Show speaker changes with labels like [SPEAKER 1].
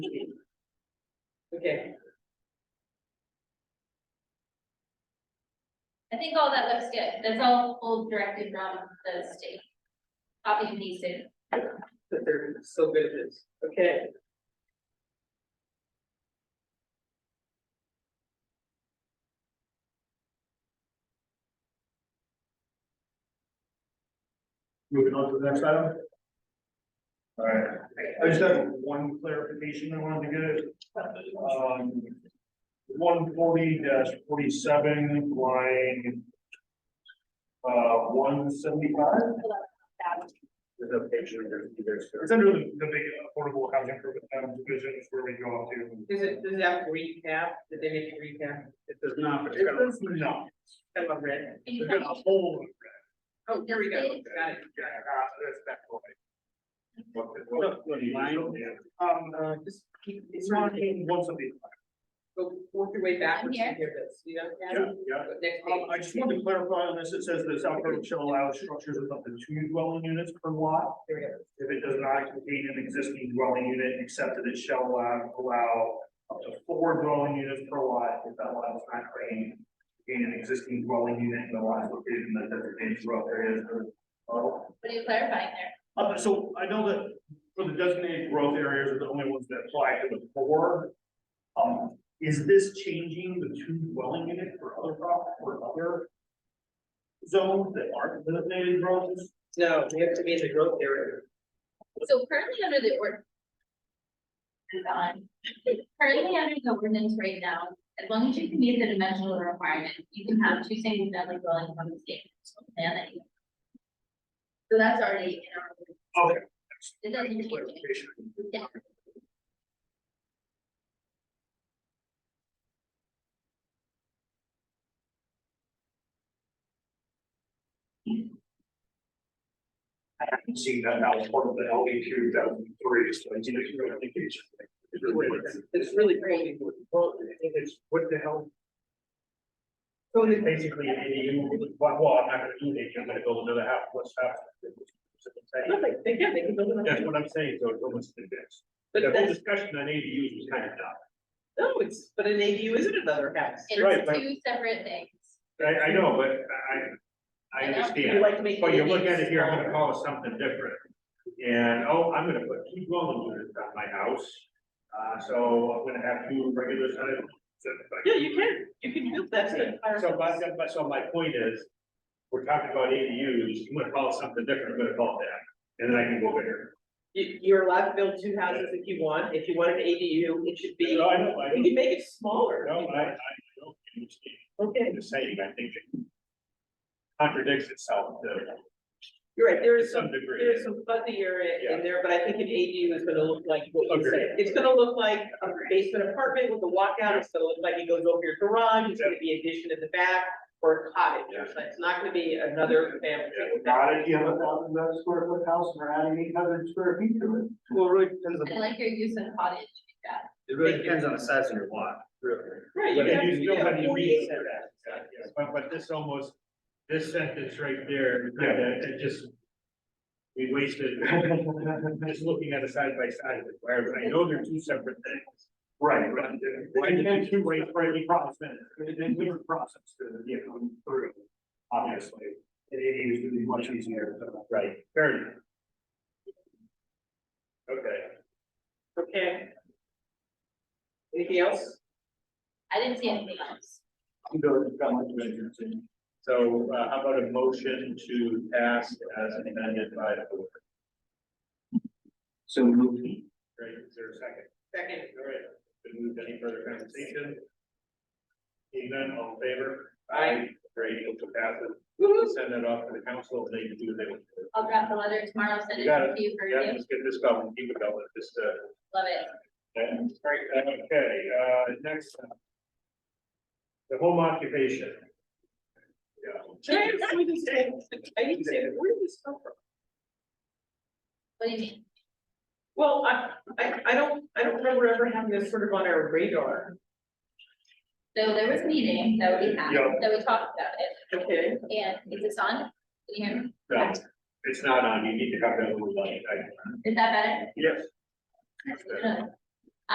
[SPEAKER 1] Okay,
[SPEAKER 2] I think all that looks good, that's all pulled directly from the state. Copy and pasted,
[SPEAKER 1] but they're so good at this, okay.
[SPEAKER 3] Moving on to the next item. All right, I just have one clarification I wanted to get. Um, one forty forty-seven, line uh, one seventy-five, is a page in there, you guys- It's under the, the big affordable housing program um, division, is where we go up to.
[SPEAKER 1] Does it, does that recap, did they make a recap?
[SPEAKER 3] It does not, but
[SPEAKER 1] it's got a-
[SPEAKER 3] No,
[SPEAKER 1] I love red.
[SPEAKER 3] it's got a whole.
[SPEAKER 1] Oh, here we go, got it.
[SPEAKER 3] Yeah, uh, that's that one. What- what- what do you- Yeah.
[SPEAKER 1] Um, uh, just keep,
[SPEAKER 3] It's
[SPEAKER 1] it's
[SPEAKER 3] not
[SPEAKER 1] wrong,
[SPEAKER 3] in one seventy five.
[SPEAKER 1] go, work your way backwards
[SPEAKER 2] I'm
[SPEAKER 1] and hear this, you know?
[SPEAKER 3] Yeah, yeah.
[SPEAKER 1] But Next
[SPEAKER 3] Um, I just wanted
[SPEAKER 1] page.
[SPEAKER 3] to clarify on this, it says the South Dakota shall allow structures of up to two dwelling units per lot.
[SPEAKER 1] Here we go.
[SPEAKER 3] If it does not contain an existing dwelling unit, except that it shall allow, allow up to four dwelling units per lot if that lot is not creating. In an existing dwelling unit and the lot is located in the designated rural areas uh, of. of-
[SPEAKER 2] what are you clarifying there?
[SPEAKER 3] uh, so I know that for the designated growth areas are the only ones that apply to the four. Um, is this changing the two dwelling unit for other prop, for other? Zones that aren't designated growth?
[SPEAKER 1] No, we have to be in the growth area.
[SPEAKER 2] So currently under the ord. Move on. currently under the ordinance right now, as long as you can meet the dimensional requirement, you can have two single family dwelling on the state. plan that you- So that's already in our. ordinance.
[SPEAKER 3] Okay.
[SPEAKER 2] It doesn't change. it.
[SPEAKER 3] Clarification.
[SPEAKER 2] Yeah.
[SPEAKER 3] I haven't seen that now, it's part of the LD two thousand three, so I didn't even think it's. it's really-
[SPEAKER 1] It's really crazy.
[SPEAKER 3] Well, I think it's, what the hell?
[SPEAKER 1] So
[SPEAKER 3] It's
[SPEAKER 1] the-
[SPEAKER 3] basically, an ADU, well, well, I'm not gonna do it, I'm gonna build another house, what's happening?
[SPEAKER 1] no, they, they can, they can build another.
[SPEAKER 3] That's what I'm saying, so it's almost the best.
[SPEAKER 1] But
[SPEAKER 3] The whole
[SPEAKER 1] that's,
[SPEAKER 3] discussion on ADUs was kind of dumb.
[SPEAKER 1] no, it's, but an ADU isn't another house.
[SPEAKER 3] Right,
[SPEAKER 2] It's
[SPEAKER 3] but-
[SPEAKER 2] two separate things.
[SPEAKER 3] I, I know, but I, I
[SPEAKER 1] You
[SPEAKER 3] understand,
[SPEAKER 1] like to make.
[SPEAKER 3] but you look at
[SPEAKER 1] ADUs
[SPEAKER 3] it here, I'm gonna
[SPEAKER 1] smaller.
[SPEAKER 3] call it something different. And, oh, I'm gonna put two dwelling units on my house, uh, so I'm gonna have two regular sized.
[SPEAKER 1] Yeah, you can, you can build that to entire
[SPEAKER 3] So, but,
[SPEAKER 1] house.
[SPEAKER 3] but, so my point is, we're talking about ADUs, I'm gonna call it something different, I'm gonna call it that, and then I can go bigger.
[SPEAKER 1] You, you're allowed to build two houses if you want, if you want an ADU, it should be,
[SPEAKER 3] No, I know, I
[SPEAKER 1] you
[SPEAKER 3] know,
[SPEAKER 1] can make it smaller.
[SPEAKER 3] no, I, I don't understand.
[SPEAKER 1] Okay,
[SPEAKER 3] the saying, I think it contradicts itself to
[SPEAKER 1] you're right, there
[SPEAKER 3] to
[SPEAKER 1] is some,
[SPEAKER 3] some degree.
[SPEAKER 1] there is some fuzzy area in there, but I think an ADU is gonna look like what you said.
[SPEAKER 3] Agreed.
[SPEAKER 1] It's gonna look like a basement apartment with a walkout, it's gonna look like it goes over your garage, it's gonna be addition in the back, or a cottage, or something. it's not gonna be another family.
[SPEAKER 3] Not if you have a thousand square foot house and we're adding eight hundred square feet to it. Well, really depends
[SPEAKER 2] I like your use of cottage.
[SPEAKER 4] It really depends on the size of your lot, really.
[SPEAKER 1] Right, you
[SPEAKER 3] But
[SPEAKER 1] have,
[SPEAKER 3] you
[SPEAKER 1] you
[SPEAKER 3] still
[SPEAKER 1] have
[SPEAKER 3] have to
[SPEAKER 1] forty-eight
[SPEAKER 3] read
[SPEAKER 1] setback.
[SPEAKER 3] that. But, but this almost, this sentence right there, kinda, it just. We wasted, just looking at it side by side, with where, I know they're two separate things. Right. But they're two ways for every process, there's different process to, you know, through, obviously. It is gonna be much easier, so, right, fair enough. Okay.
[SPEAKER 1] Okay. Anything else?
[SPEAKER 2] I didn't see anything else.
[SPEAKER 3] I'm good, got my questions in. So uh, how about a motion to pass as amended by the board?
[SPEAKER 4] So moved.
[SPEAKER 3] Great, is there a second?
[SPEAKER 1] Second.
[SPEAKER 3] All right, been moved any further conversation? Seeing none, all in favor?
[SPEAKER 1] Aye.
[SPEAKER 3] Great, motion passes.
[SPEAKER 1] Woo-hoo.
[SPEAKER 3] We'll Send that off to the council, and they can do what they want. to do.
[SPEAKER 2] I'll draft the letter tomorrow, send it
[SPEAKER 3] You got it.
[SPEAKER 2] to you for
[SPEAKER 3] Yeah,
[SPEAKER 2] review,
[SPEAKER 3] let's get this going, keep it going, just, uh,
[SPEAKER 2] love it.
[SPEAKER 3] And, great, uh, okay, uh, next. uh, The home occupation. Yeah.
[SPEAKER 1] Can I just- we just say- I need to say, that. where did this come from?
[SPEAKER 2] What do you mean?
[SPEAKER 1] Well, I, I, I don't, I don't remember ever having this sort of on our radar,
[SPEAKER 2] So there was a meeting that we had,
[SPEAKER 3] Yeah.
[SPEAKER 2] that we talked about it,
[SPEAKER 1] okay?
[SPEAKER 2] and is this on? Can you hear me?
[SPEAKER 3] No, it's not on, you need to have that little light, I,
[SPEAKER 2] Is that
[SPEAKER 3] yes.
[SPEAKER 2] better?